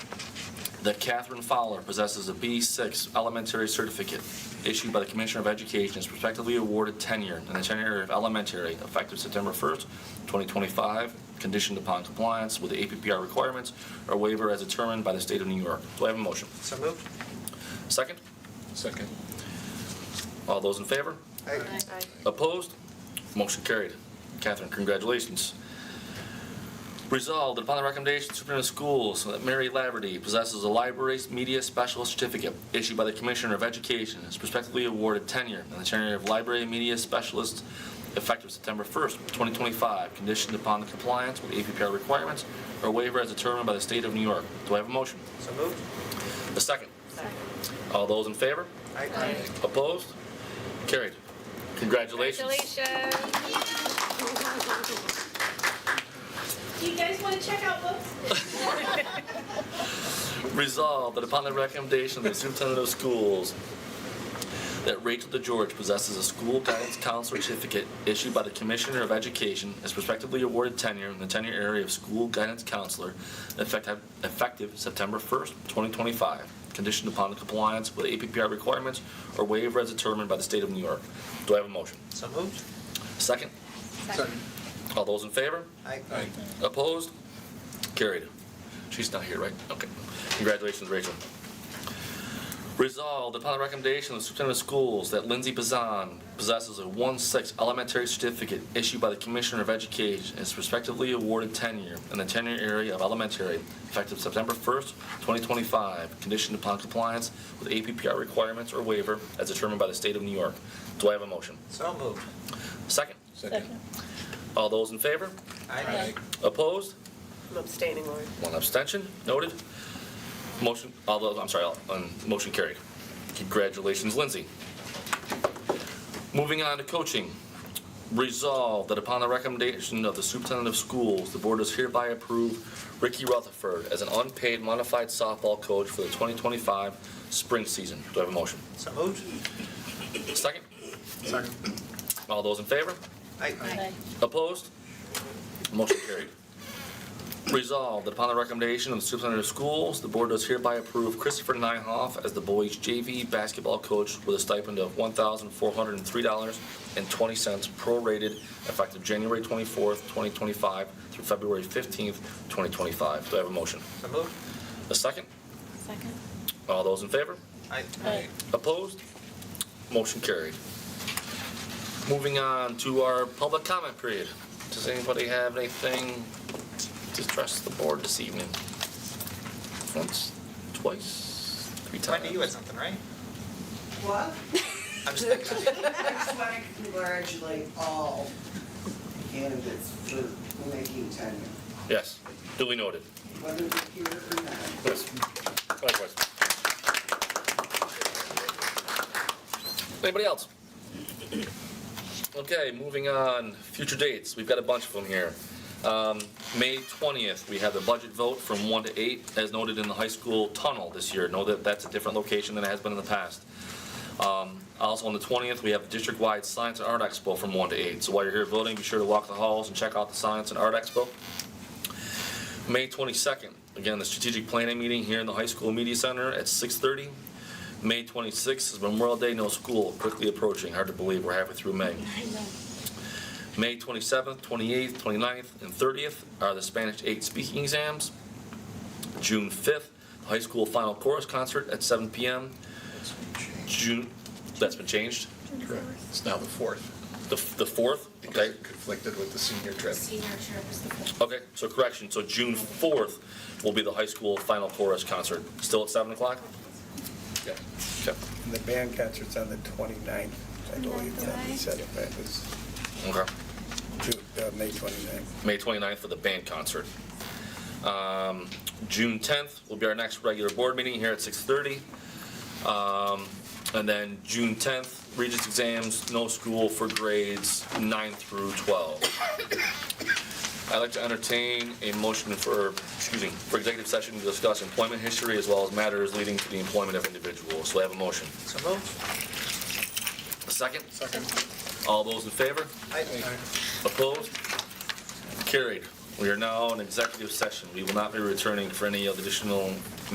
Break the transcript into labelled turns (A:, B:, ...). A: that Catherine Fowler possesses a B6 elementary certificate issued by the Commissioner of Education is respectively awarded tenure in the tenure area of elementary effective September 1st, 2025, conditioned upon compliance with the APPR requirements or waiver as determined by the state of New York. Do I have a motion?
B: So moved.
A: Second?
C: Second.
A: All those in favor?
B: Aye.
A: Opposed? Motion carried. Catherine, congratulations. Resolved that upon the recommendation of the Superintendent of Schools that Mary Laverty possesses a library media specialist certificate issued by the Commissioner of Education and is prospectively awarded tenure in the tenure of library media specialist effective September 1st, 2025, conditioned upon the compliance with APPR requirements or waiver as determined by the state of New York. Do I have a motion?
B: So moved.
A: A second. All those in favor?
B: Aye.
A: Opposed? Carried. Congratulations.
D: Congratulations.
E: Do you guys want to check out books?
A: Resolved that upon the recommendation of the superintendent of schools, that Rachel DeGeorge possesses a school guidance counselor certificate issued by the Commissioner of Education as prospectively awarded tenure in the tenure area of school guidance counselor effective effective September 1st, 2025, conditioned upon the compliance with APPR requirements or waiver as determined by the state of New York. Do I have a motion?
B: So moved.
A: Second?
C: Second.
A: All those in favor?
B: Aye.
C: Aye.
A: Opposed? Carried. She's not here, right? Okay. Congratulations, Rachel. Resolved upon the recommendation of the superintendent of schools that Lindsay Bazan possesses a 1/6 elementary certificate issued by the Commissioner of Education and is respectively awarded tenure in the tenure area of elementary effective September 1st, 2025, conditioned upon compliance with APPR requirements or waiver as determined by the state of New York. Do I have a motion?
B: So moved.
A: Second.
C: Second.
A: All those in favor?
B: Aye.
A: Opposed?
F: I'm abstaining, Lori.
A: One abstention, noted. Motion, although, I'm sorry, um, motion carried. Congratulations, Lindsay. Moving on to coaching. Resolved that upon the recommendation of the superintendent of schools, the board does hereby approve Ricky Rutherford as an unpaid modified softball coach for the 2025 spring season. Do I have a motion?
B: So moved.
A: Second? Second. All those in favor?
B: Aye.
A: Opposed? Motion carried. Resolved, that upon the recommendation of the superintendent of schools, the board does hereby approve Christopher Nyhoff as the boys JV basketball coach with a stipend of $1,403.20 prorated effective January 24th, 2025 through February 15th, 2025. Do I have a motion?
B: So moved.
A: A second?
D: Second.
A: All those in favor?
B: Aye.
D: Aye.
A: Opposed? Motion carried. Moving on to our public comment period. Does anybody have anything to address the board this evening? Once, twice, three times?
B: Tony, you had something, right?
G: What?
B: I'm just thinking.
G: I just want to congratulate all candidates for making tenure,
A: Yes, duly noted.
G: whether they're here or not.
A: Yes. Likewise. Anybody else? Okay, moving on, future dates, we've got a bunch of them here. Um, May 20th, we have the budget vote from 1 to 8, as noted in the high school tunnel this year. Know that that's a different location than it has been in the past. Um, Also on the 20th, we have the district-wide Science and Art Expo from 1 to 8. So while you're here voting, be sure to walk the halls and check out the Science and Art Expo. May 22nd, again, the strategic planning meeting here in the high school media center at 6:30. May 26th is Memorial Day, no school, quickly approaching, hard to believe, we're halfway through May. May 27th, 28th, 29th, and 30th are the Spanish 8 speaking exams. June 5th, the high school final chorus concert at 7 PM. June, that's been changed,
C: Correct. It's now the fourth,
A: the the 4th,
C: because
A: okay?
C: it conflicted with the senior trip.
E: Senior trip is the first.
A: Okay, so correction, so June 4th will be the high school final chorus concert, still at 7 o'clock?
C: Yeah.
A: Okay.
H: And the band concert's on the 29th, I believe, that he said it, but it was
A: Okay.
H: Ju- uh, May 29th.
A: May 29th for the band concert. Um, June 10th will be our next regular board meeting here at 6:30. Um, And then June 10th, Regents exams, no school for grades 9 through 12. I'd like to entertain a motion for, excuse me, for executive session to discuss employment history as well as matters leading to the employment of individuals. So I have a motion.
B: So moved.
A: A second?
C: Second.
A: All those in favor?
B: Aye.
A: Opposed? Carried. We are now in executive session. We will not be returning for any additional